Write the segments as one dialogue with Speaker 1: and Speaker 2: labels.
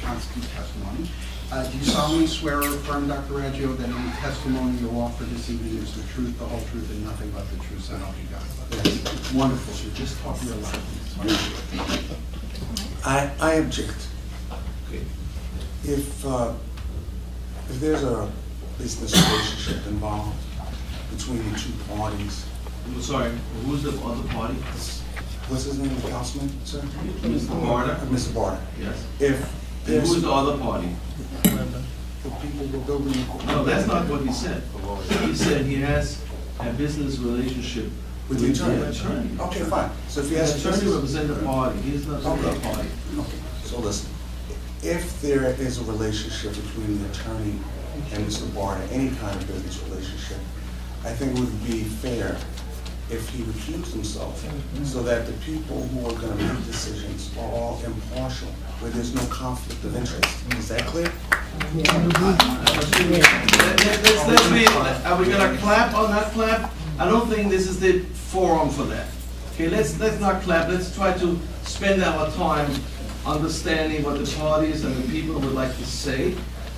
Speaker 1: constant testimony. Uh, Do you solemnly swear or affirm, Dr. Raggio, that any testimony you offer this evening is the truth, the whole truth, and nothing but the truth, so help you God? That's wonderful, so just talk real loud.
Speaker 2: I, I object. If, uh, if there's a business relationship involved between the two parties,
Speaker 3: I'm sorry, who's the other party?
Speaker 2: what's his name, the councilman, sir?
Speaker 3: Mr.
Speaker 2: Uh,
Speaker 3: Marta?
Speaker 2: Mr. Barton.
Speaker 3: Yes.
Speaker 2: If
Speaker 3: And
Speaker 2: there's,
Speaker 3: who's the
Speaker 2: the
Speaker 3: other party?
Speaker 2: people were building.
Speaker 3: No, that's not what he said. He said he has a business relationship
Speaker 2: With the attorney. Oh,
Speaker 3: attorney.
Speaker 2: Okay, fine. So if he
Speaker 3: The
Speaker 2: has. a
Speaker 3: attorney
Speaker 2: business-
Speaker 3: represents the party, he's not the other
Speaker 2: Okay.
Speaker 3: party.
Speaker 2: Okay, so listen, if there is a relationship between the attorney and Mr. Barton, any kind of business relationship, I think it would be fair if he recused himself so that the people who are gonna make decisions are all impartial, where there's no conflict of interest. Is that clear?
Speaker 3: Let- let- Let's, let's be, are we gonna clap or not clap? I don't think this is the forum for that. Okay, let's, let's not clap, let's try to spend our time understanding what the parties and the people would like to say.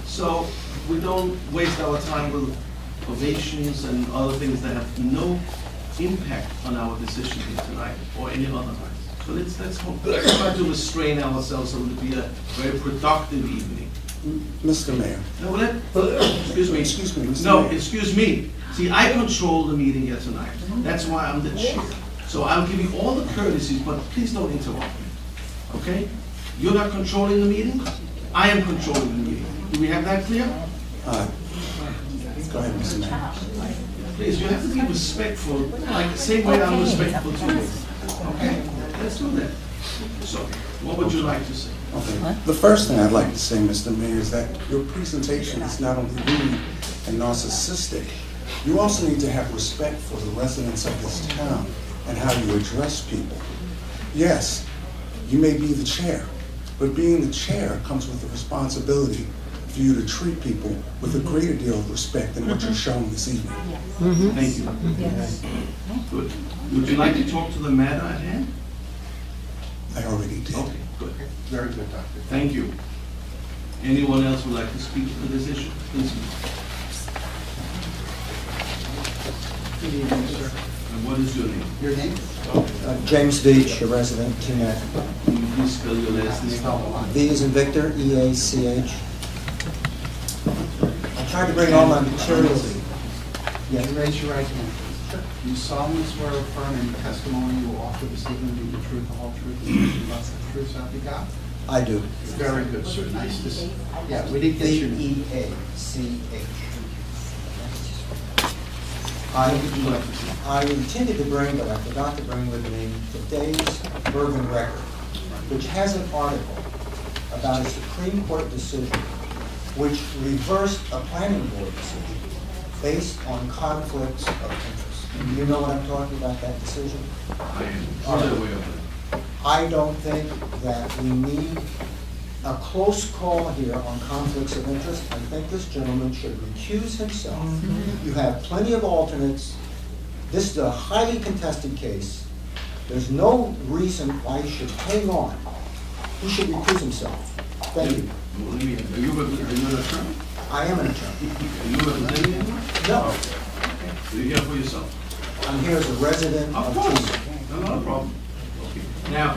Speaker 3: So we don't waste our time with ovations and other things that have no impact on our decision here tonight or any other night. So let's, let's hope, let's try to restrain ourselves so it'll be a very productive evening.
Speaker 2: Mr. Mayor,
Speaker 3: No, let, uh, excuse me.
Speaker 2: Excuse me, Mr.
Speaker 3: No,
Speaker 2: Mayor.
Speaker 3: excuse me. See, I control the meeting here tonight. That's why I'm the chair. So I'll give you all the courtesies, but please don't interrupt me, okay? You're not controlling the meeting? I am controlling the meeting. Do we have that clear?
Speaker 2: uh, go ahead, Mr. Mayor.
Speaker 3: Please, you have to be respectful, like the same way I'm respectful to you. Okay, let's do that. So, what would you like to say?
Speaker 2: Okay. The first thing I'd like to say, Mr. Mayor, is that your presentation is not only rude and narcissistic, you also need to have respect for the residents of this town and how you address people. Yes, you may be the chair, but being the chair comes with the responsibility for you to treat people with a greater deal of respect than what you're showing this evening.
Speaker 3: Thank you. Good. Would you like to talk to the matter at hand?
Speaker 2: I already did.
Speaker 3: Okay, good.
Speaker 1: Very good, Doctor.
Speaker 3: Thank you. Anyone else would like to speak to this issue? Please. And
Speaker 1: Good evening, sir.
Speaker 3: what is your name?
Speaker 1: Your name?
Speaker 4: Uh, James Beach, a resident, Teaneck.
Speaker 3: Can you please spell your last name?
Speaker 4: V is in Victor, E E-A-C-H. I tried to bring all my materials.
Speaker 1: Yeah, raise your right hand, please. Do you solemnly swear or affirm any testimony you will offer this evening be the truth, the whole truth, and nothing but the truth, so help you God?
Speaker 4: I do.
Speaker 1: Very good, sir. Nice to see you. Yeah, we didn't get your name.
Speaker 4: E V-E-A-C-H. E
Speaker 3: What would you like to
Speaker 1: E
Speaker 3: say?
Speaker 4: I intended to bring, but I forgot to bring with me, today's Bergen Record, which has an article about a Supreme Court decision which reversed a planning board decision based on conflicts of interest. And you know what I'm talking about, that decision?
Speaker 3: I am fully aware of
Speaker 4: I don't think that we need a close call here on conflicts of interest. I think this gentleman should recuse himself. You have plenty of alternates. This is a highly contested case. There's no reason why he should hang on. He should recuse himself. Thank you.
Speaker 3: that. Well, let me- Are you repre- are you an attorney?
Speaker 4: I am an attorney.
Speaker 3: Are you representing anyone?
Speaker 4: No,
Speaker 3: You're here for yourself.
Speaker 4: I'm here as a resident of
Speaker 3: Of course,
Speaker 4: Tucson.
Speaker 3: no, not a problem. Okay. Now,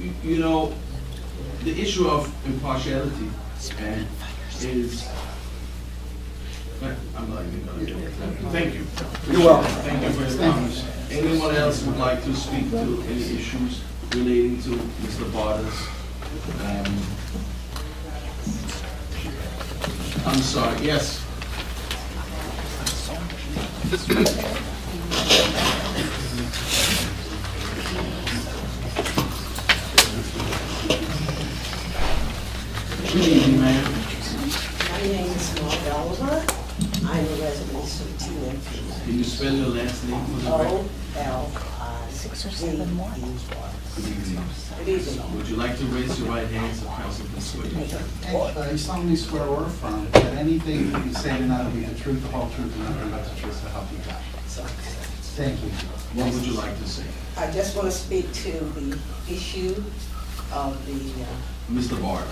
Speaker 3: you- you know, the issue of impartiality and is, I'm not even gonna, do it. thank you.
Speaker 4: You're welcome.
Speaker 3: Thank you for your comments. Anyone else would like to speak to any issues relating to Mr. Bardas? Um, I'm sorry, yes. Good evening, ma'am.
Speaker 5: My name is Maud Oliver. I'm a resident of Teaneck.
Speaker 3: Can you spell your last name for the record?
Speaker 5: O L I
Speaker 6: Six or
Speaker 5: V
Speaker 6: seven more.
Speaker 5: E R.
Speaker 3: Good evening.
Speaker 5: Good evening.
Speaker 3: Would you like to raise your right hand so council can swear you?
Speaker 1: Uh, You solemnly swear or affirm that anything that you say tonight will be the truth, the whole truth, and nothing but the truth, so help you God? Thank you.
Speaker 3: What would you like to say?
Speaker 5: I just want to speak to the issue of the uh,
Speaker 3: Mr. Barr?